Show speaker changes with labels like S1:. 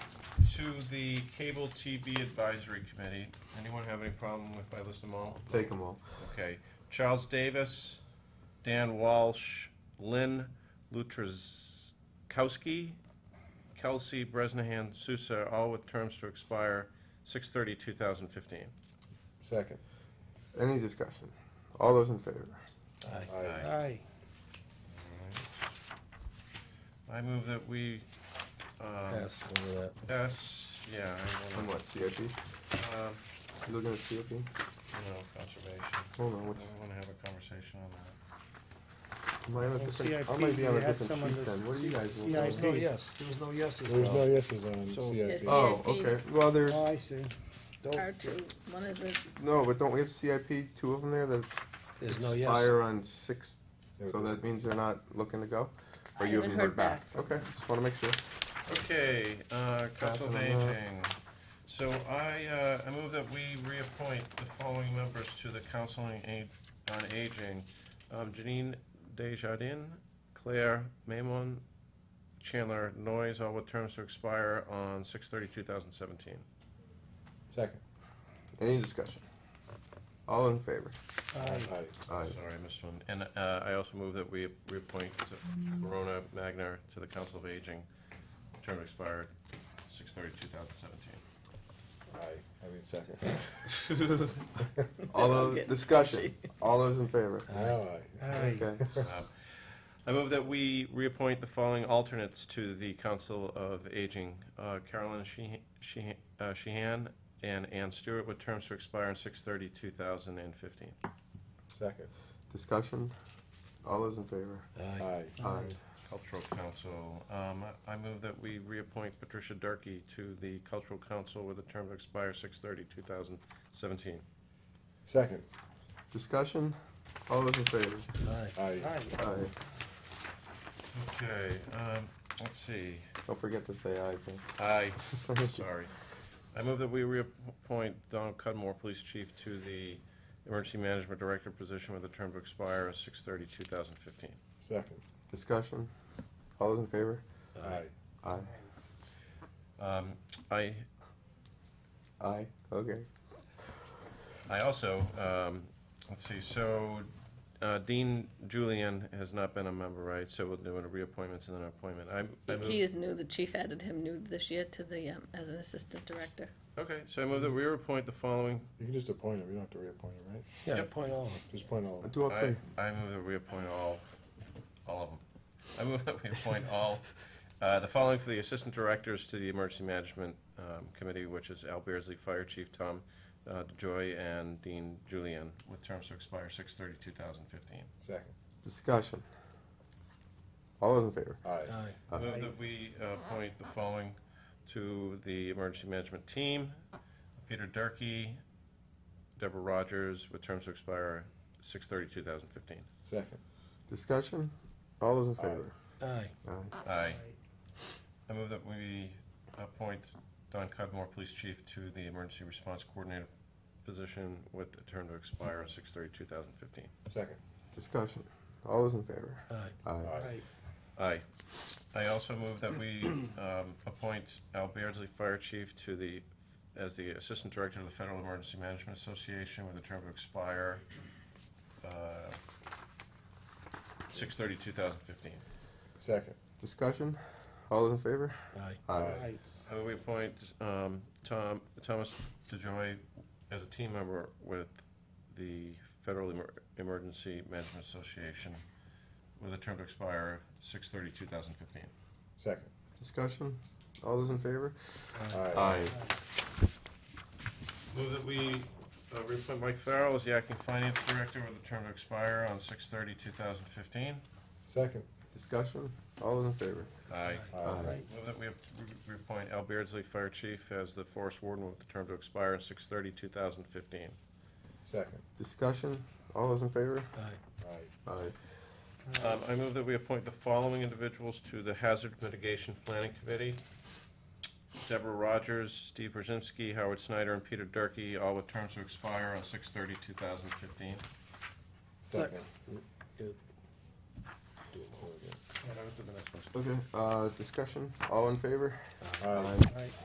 S1: to the Cable TV Advisory Committee. Anyone have any problem if I list them all?
S2: Take them all.
S1: Okay. Charles Davis, Dan Walsh, Lynn Lutraskowski, Kelsey Bresnahan Sousa, all with terms to expire 6/30/2015.
S3: Second.
S2: Any discussion? All those in favor?
S3: Aye.
S4: Aye.
S1: I move that we, um,
S3: Pass over that.
S1: yes, yeah, I
S2: On
S1: wanna,
S2: what, CIP? You
S1: um,
S2: looking at CIP?
S1: you know, conservation.
S2: Hold on,
S1: We
S2: what,
S1: wanna have a conversation on that.
S2: am I on a
S4: Well,
S2: different, I
S4: CIP,
S2: might be on a
S4: we had
S2: different
S4: some on
S2: sheet
S4: this-
S2: then, what are you guys
S4: CIP.
S2: looking
S4: There
S2: at?
S4: was no
S3: yes, there was no yeses.
S5: There was no yeses on
S3: So-
S5: CIP.
S2: Oh,
S5: CIP.
S2: okay, well, there's,
S4: Oh, I see.
S5: Our two, one of the,
S2: no, but don't we have CIP, two of them there that
S3: There's no yes.
S2: expire on six, so that means they're not looking to go?
S5: I
S2: Or you
S5: haven't
S2: haven't
S5: heard
S2: heard back?
S5: back.
S2: Okay, just wanna make sure.
S1: Okay, uh, Council of
S2: Passing them out.
S1: Aging. So I, uh, I move that we reappoint the following members to the Council on A- on Aging. Um, Janine Desjardins, Claire Mamon, Chandler Noyes, all with terms to expire on six thirty, two thousand seventeen.
S3: Second.
S2: Any discussion? All in favor?
S4: Aye.
S2: Aye.
S1: Sorry, I missed one. And, uh, I also move that we reappoint Corona Magnar to the Council of Aging, term expired six thirty, two thousand seventeen.
S3: I mean, second.
S2: All
S5: I'm
S2: those,
S5: getting
S2: discussion,
S5: touchy.
S2: all those in favor?
S4: Aye.
S2: Okay,
S1: I move that we reappoint the following alternates to the Council of Aging, uh, Carolyn Sheehan- Sheehan uh, Sheehan and Ann Stewart, with terms to expire on 6/30/2015.
S3: Second.
S2: discussion, all those in favor?
S3: Aye.
S2: Aye.
S1: Cultural Council, um, I move that we reappoint Patricia Durkey to the Cultural Council with a term to expire 6/30/2017.
S3: Second.
S2: Discussion, all those in favor?
S3: Aye.
S4: Aye.
S2: Aye.
S1: Okay, um, let's see,
S2: Don't forget to say aye, please.
S1: I, sorry. I move that we reappoint Donald Cudmore, Police Chief, to the Emergency Management Director position with a term to expire at 6/30/2015.
S3: Second.
S2: Discussion, all those in favor?
S3: Aye.
S2: Aye.
S1: Um, I,
S2: Aye, okay.
S1: I also, um, let's see, so uh, Dean Julian has not been a member, right? So we'll do a reappointments and then an appointment. I, I
S5: he
S1: move,
S5: is new, the chief added him new this year to the, um, as an assistant director.
S1: okay, so I move that we reappoint the following.
S6: You can just appoint him, you don't have to reappoint him, right?
S3: Yeah,
S1: Yep.
S3: point all.
S6: Just appoint all of them.
S2: Do all
S1: I,
S2: three.
S1: I move that we appoint all, all of them. I move that we appoint all, uh, the following for the assistant directors to the emergency management, um, committee, which is Al Beardsley, Fire Chief Tom, uh, DeJoy, and Dean Julian, with terms to expire six thirty, two thousand fifteen.
S3: Second.
S2: Discussion. All those in favor?
S3: Aye.
S6: Aye.
S2: Aye.
S1: Move that we uh, appoint the following to the emergency management team, Peter Durkey, Deborah Rogers, with terms to expire six thirty, two thousand fifteen.
S3: Second.
S2: Discussion, all those in
S3: Aye.
S2: favor?
S3: Aye.
S2: Aye.
S1: Aye. I move that we appoint Don Cudmore, Police Chief, to the Emergency Response Coordinator position with a term to expire 6/30/2015.
S3: Second.
S2: Discussion, all those in favor?
S3: Aye.
S2: Aye.
S4: Aye.
S1: Aye. I also move that we um, appoint Al Beardsley, Fire Chief, to the, as the Assistant Director of the Federal Emergency Management Association with a term to expire uh, 6/30/2015.
S3: Second.
S2: Discussion, all those in favor?
S3: Aye.
S2: Aye.
S4: Aye.
S1: I move we appoint um, Tom, Thomas DeJoy as a team member with the Federal Emer- Emergency Management Association with a term to expire 6/30/2015.
S3: Second.
S2: Discussion, all those in favor?
S3: Aye.
S1: Move that we uh, reappoint Mike Farrell as the Acting Finance Director with a term to expire on 6/30/2015.
S3: Second.
S2: Discussion, all those in favor?
S1: Aye.
S2: Aye.
S1: Move that we ap- we appoint Al Beardsley, Fire Chief, as the Forest Warden with a term to expire on 6/30/2015.
S3: Second.
S2: Discussion, all those in favor?
S3: Aye.
S2: Aye.
S1: Um, I move that we appoint the following individuals to the Hazard Mitigation Planning Committee. Deborah Rogers, Steve Brzezinski, Howard Snyder, and Peter Durkey, all with terms to expire on 6 2015
S3: Second.
S2: Okay, uh, discussion, all in favor?
S3: Aye.
S4: Aye.